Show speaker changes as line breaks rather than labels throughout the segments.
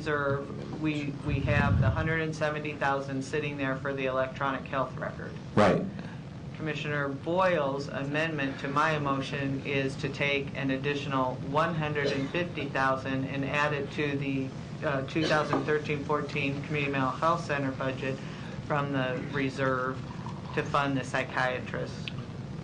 reserve, we, we have the 170,000 sitting there for the electronic health record.
Right.
Commissioner Boyle's amendment to my motion is to take an additional 150,000 and add it to the uh, 2013-14 Community Mental Health Center budget from the reserve to fund the psychiatrists.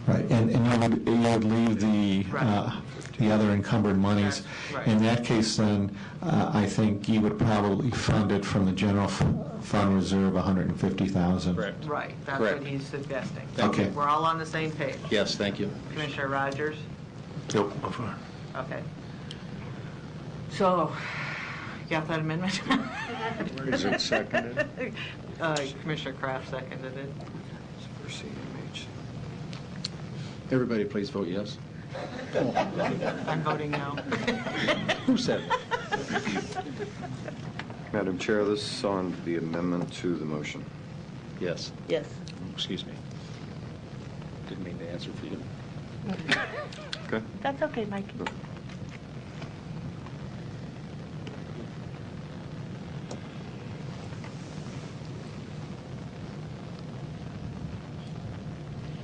Right, and, and you would, you would leave the,
Right.
uh, the other encumbered monies.
Right, right.
In that case, then, uh, I think you would probably fund it from the general f- fund reserve, 150,000.
Correct.
Right, that's what
Correct.
he's suggesting.
Thank you.
We're all on the same page.
Yes, thank you.
Commissioner Rogers?
Nope.
Okay. So, you got that amendment?
Is it seconded?
Uh, Commissioner Kraft seconded it.
Everybody, please vote yes.
I'm voting no.
Who said it?
Madam Chair, this is on the amendment to the motion.
Yes. Oh,
Yes.
Excuse me. Didn't mean to answer for you.
Okay?
That's okay, Mike.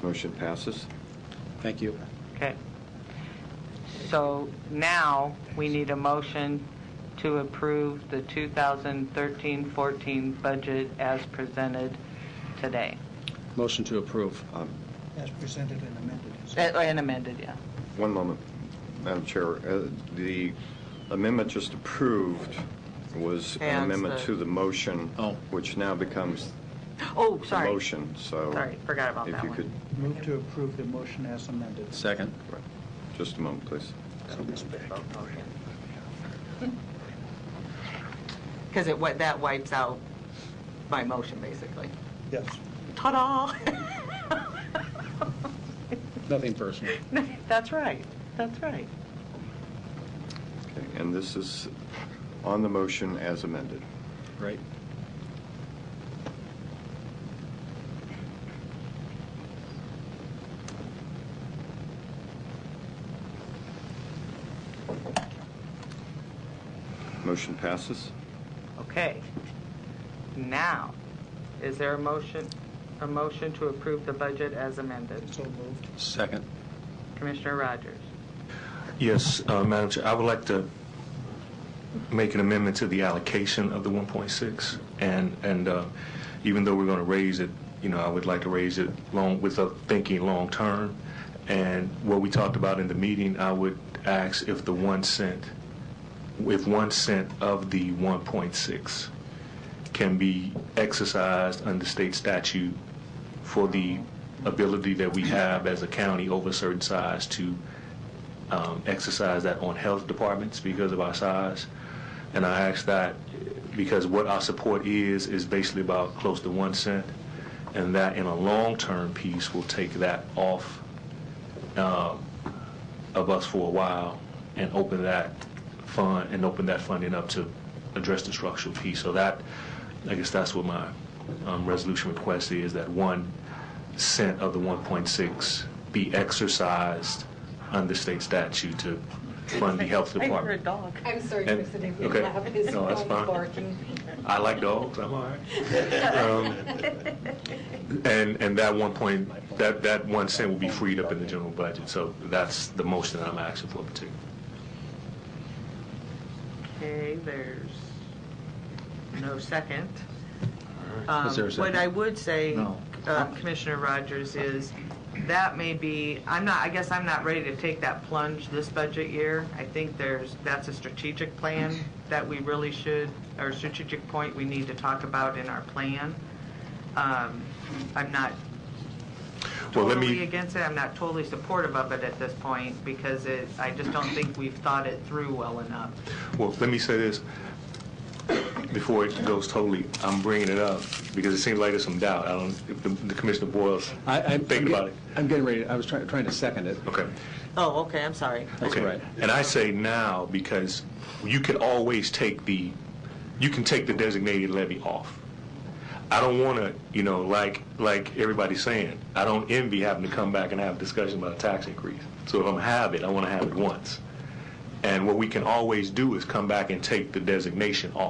Motion passes.
Thank you.
Okay. So now, we need a motion to approve the 2013-14 budget as presented today.
Motion to approve.
Um,
As presented and amended.
Uh, And amended, yeah.
One moment, Madam Chair. Uh, The amendment just approved was
And
an amendment
the-
to the motion,
Oh.
which now becomes
Oh,
the
sorry.
motion, so...
Sorry, forgot about that
If you
one.
could,
Move to approve the motion as amended.
Second.
right. just a moment, please.
Because it, wi- that wipes out my motion, basically.
Yes.
Ta-da!
Nothing personal.
That's right, that's right.
Okay, And this is on the motion as amended.
Right?
Motion passes.
Okay. Now, is there a motion, a motion to approve the budget as amended?
So moved.
Second.
Commissioner Rogers?
Yes, uh, Madam Chair, I would like to make an amendment to the allocation of the 1.6, and, and uh, even though we're going to raise it, you know, I would like to raise it long, with a thinking long-term, and what we talked about in the meeting, I would ask if the 1 cent, if 1 cent of the 1.6 can be exercised under state statute for the ability that we have as a county over a certain size to um, exercise that on health departments because of our size. And I ask that because what our support is, is basically about close to one cent. And that in a long-term piece will take that off um, of us for a while and open that fund, and open that funding up to address the structural piece. So that, I guess that's what my um, resolution request is, that one cent of the 1.6 be exercised under state statute to fund the health
I heard a
department.
dog.
I'm sorry,
And-
Mr. Dick,
okay.
his
No, that's
dog
fine.
barking.
I like dogs, I'm all right. Um, And, and that one point, that, that one cent will be freed up in the general budget. So that's the motion that I'm asking for particularly.
Okay, there's no second.
right. Is there
Um,
a
What
second?
I would say,
No.
uh, Commissioner Rogers, is that may be, I'm not, I guess I'm not ready to take that plunge this budget year. I think there's, that's a strategic plan that we really should, or strategic point we need to talk about in our plan. Um, I'm not
Well, let
totally
me,
against it, I'm not totally supportive of it at this point, because it, I just don't think we've thought it through well enough.
Well, let me say this, before it goes totally, I'm bringing it up, because it seems like there's some doubt, I don't, if the- the Commissioner Boyle's
I, I'm.
thinking about it.
I'm getting ready, I was trying, trying to second it.
Okay,
Oh, okay, I'm sorry.
That's
okay.
right.
And I say now, because you can always take the, you can take the designated levy off. I don't want to, you know, like, like everybody's saying, I don't envy having to come back and have a discussion about a tax increase. So if I'm have it, I want to have it once. And what we can always do is come back and take the designation off.